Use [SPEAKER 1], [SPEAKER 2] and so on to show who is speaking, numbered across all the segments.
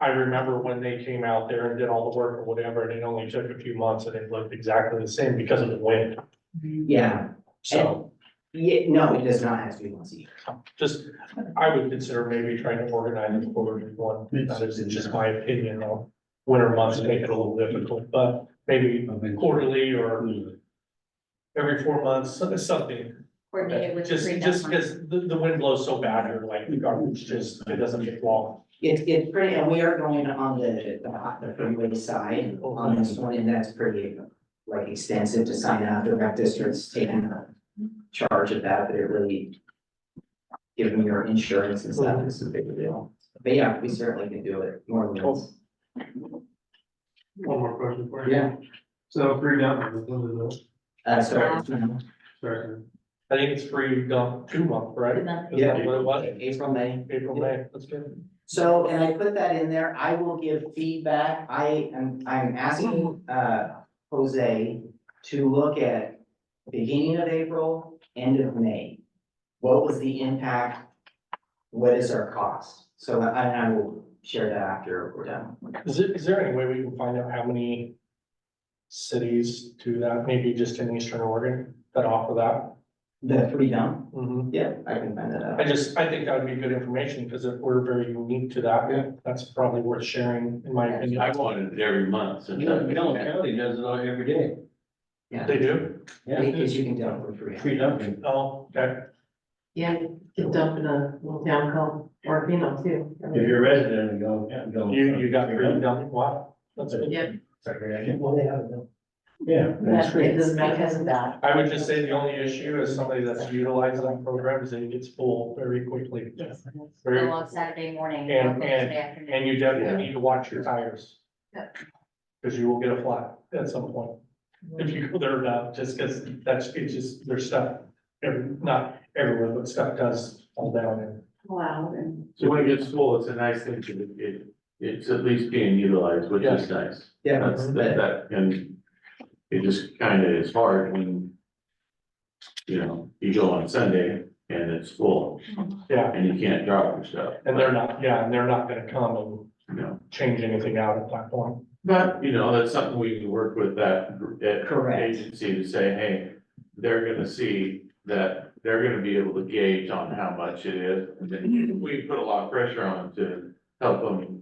[SPEAKER 1] I remember when they came out there and did all the work or whatever, and it only took a few months and it looked exactly the same because of the wind.
[SPEAKER 2] Yeah,
[SPEAKER 1] So
[SPEAKER 2] yeah, no, it does not have to be once a year.
[SPEAKER 1] just, I would consider maybe trying to organize it for everyone. That is just my opinion on winter months make it a little difficult, but maybe quarterly or every four months, so- something.
[SPEAKER 3] coordinated with. the
[SPEAKER 1] Just,
[SPEAKER 3] green
[SPEAKER 1] just
[SPEAKER 3] deadline.
[SPEAKER 1] because the, the wind blows so bad, you're like, the garbage just, it doesn't get long.
[SPEAKER 2] It, it's pretty, and we are going on the, the hot- the freeway side on this one, and that's pretty, like, extensive to sign out, the rec district's taking a charge of that, but it really given your insurance and stuff is a big deal. But yeah, we certainly can do it more than once.
[SPEAKER 4] One more question for you.
[SPEAKER 2] Yeah,
[SPEAKER 4] So free download, what is it?
[SPEAKER 2] uh, sorry, it's been
[SPEAKER 4] Sorry.
[SPEAKER 1] I think it's free, um, two month,
[SPEAKER 3] The
[SPEAKER 1] right?
[SPEAKER 3] month.
[SPEAKER 1] Is that what it was?
[SPEAKER 2] April, May.
[SPEAKER 1] April, May, that's good.
[SPEAKER 2] So, and I put that in there, I will give feedback, I am, I'm asking, uh, Jose to look at beginning of April, end of May. What was the impact? What is our cost? So I, and I will share that after we're done.
[SPEAKER 1] Is it, is there any way we can find out how many cities do that, maybe just in Eastern Oregon that offer that?
[SPEAKER 2] The free dump?
[SPEAKER 1] Mhm.
[SPEAKER 2] Yeah, I can find that
[SPEAKER 1] I
[SPEAKER 2] out.
[SPEAKER 1] just, I think that would be good information, because if we're very unique to that, that's probably worth sharing, in my opinion.
[SPEAKER 5] I wanted it every month. since I've been
[SPEAKER 6] Dillon
[SPEAKER 5] back.
[SPEAKER 6] County does it all every day.
[SPEAKER 1] They do?
[SPEAKER 2] Because you can dump for free.
[SPEAKER 6] Free dumping.
[SPEAKER 1] Oh, okay.
[SPEAKER 7] Yeah, you can dump in a little town called Orfino too.
[SPEAKER 6] If you're a resident, go, go.
[SPEAKER 1] You, you got free dump, wow, that's good.
[SPEAKER 7] Yep.
[SPEAKER 2] Well, they have them.
[SPEAKER 6] Yeah.
[SPEAKER 7] That's because of that.
[SPEAKER 1] I would just say the only issue is somebody that's utilizing that program is that it gets full very quickly. Yes.
[SPEAKER 3] Go
[SPEAKER 1] Very,
[SPEAKER 3] on Saturday morning,
[SPEAKER 1] And-
[SPEAKER 3] not Thursday afternoon.
[SPEAKER 1] and you definitely need to watch your tires. Cause you will get a flat at some point. If you go there now, just cause that's, it's just, there's stuff, every, not everywhere, but stuff does fall down and.
[SPEAKER 7] Wow, and
[SPEAKER 5] So when it gets full, it's a nice thing to, it, it's at least being utilized, which is nice.
[SPEAKER 2] Yeah,
[SPEAKER 5] That's, that,
[SPEAKER 2] but
[SPEAKER 5] that, and it just kind of is hard when, you know, you go on Sunday and it's full
[SPEAKER 1] Yeah,
[SPEAKER 5] and you can't drop your stuff.
[SPEAKER 1] and they're not, yeah, and they're not gonna come and
[SPEAKER 5] You know,
[SPEAKER 1] change anything out at that point.
[SPEAKER 5] but, you know, that's something we can work with that, gr- that
[SPEAKER 2] correct,
[SPEAKER 5] agency to say, hey, they're gonna see that, they're gonna be able to gauge on how much it is. And then we put a lot of pressure on them to help them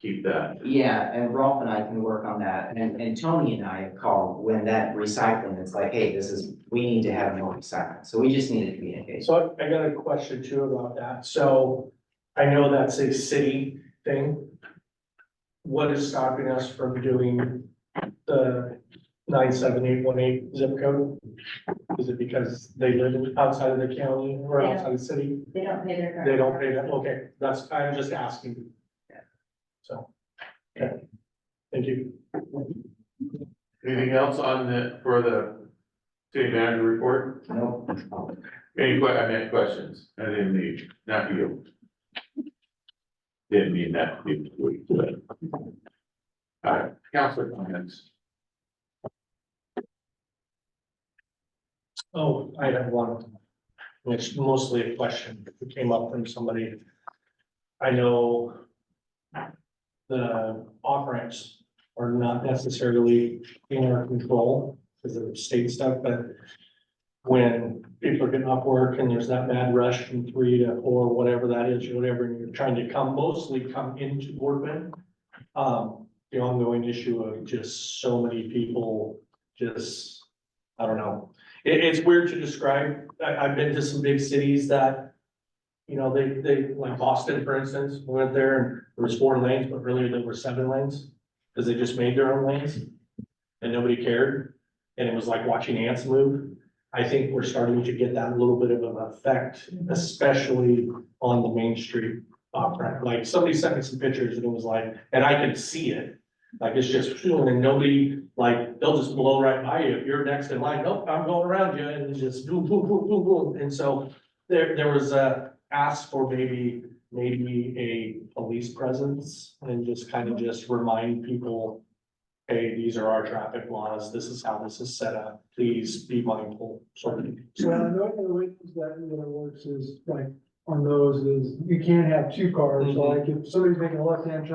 [SPEAKER 5] keep that.
[SPEAKER 2] Yeah, and Rolf and I can work on that, and, and Tony and I have called when that recycling, it's like, hey, this is, we need to have more recycling, so we just need to communicate.
[SPEAKER 1] So I I got a question too about that. So I know that's a city thing. What is stopping us from doing the nine seven eight one eight zip code? Is it because they live in- outside of the county or
[SPEAKER 3] Yeah.
[SPEAKER 1] outside the city?
[SPEAKER 3] They don't pay their.
[SPEAKER 1] They don't pay that? Okay, that's, I'm just asking. So, okay. Thank you.
[SPEAKER 5] Anything else on the, for the city manager report?
[SPEAKER 2] No,
[SPEAKER 5] Any que, I meant questions, I didn't mean, not you. Didn't mean that, to be rude, but. All right, council comments,
[SPEAKER 1] Oh, I have one, which mostly a question that came up from somebody. I know the off ramps are not necessarily in our control because of state stuff, but when people are getting off work and there's that mad rush from three to four, whatever that is, or whatever, and you're trying to come, mostly come into Boardman. Um, the ongoing issue of just so many people, just, I don't know, it, it's weird to describe, I, I've been to some big cities that. You know, they, they, like Boston, for instance, went there and there was four lanes, but really there were seven lanes, cause they just made their own lanes. And nobody cared, and it was like watching ants move. I think we're starting to get that little bit of an effect, especially on the main street. off ramp. like somebody sent me some pictures and it was like, and I could see it, like it's just, and nobody like, they'll just blow right by you. If you're next in line, nope, I'm going around you and it's just boom, boom, boom, boom, boom. And so there, there was a ask for maybe, maybe a police presence and just kind of just remind people, hey, these are our traffic laws. This is how this is set up. Please be mindful. Sort of.
[SPEAKER 8] Well, I know the way that really works is like on those is you can't have two cars,
[SPEAKER 1] Mhm.
[SPEAKER 8] like if somebody's making a left-hand turn